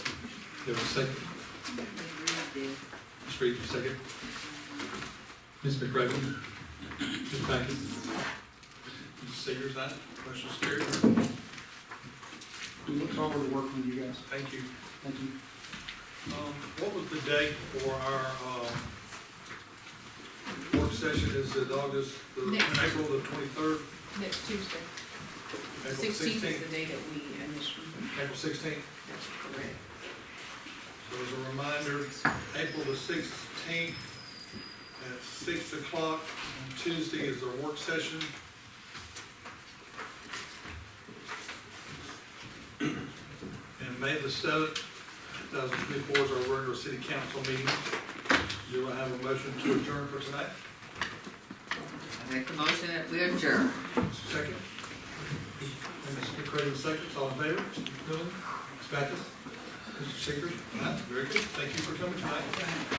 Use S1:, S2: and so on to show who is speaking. S1: you have a second? Just read your second. Ms. McRaven? Ms. Packard? Ms. Sayers, that question's carried.
S2: We look forward to working with you guys.
S1: Thank you.
S2: Thank you.
S1: Um, What was the date for our uh, work session? Is it August, the-
S3: Next.
S1: April the twenty-third?
S3: Next Tuesday,
S1: April
S3: sixteenth is
S1: sixteenth?
S3: the day that we initially,
S1: April sixteenth.
S3: that's correct.
S1: So as a reminder, April the sixteenth at six o'clock on Tuesday is our work session. And May the seventh, two thousand twenty-four is our regular city council meeting. Do I have a motion to adjourn for tonight?
S3: I make the motion that we adjourn.
S1: Second. And Mr. McCray, second, all in favor? Mr. McMillan, Ms. Backus, Mr. Seegers? Aye, very good, thank you for coming tonight.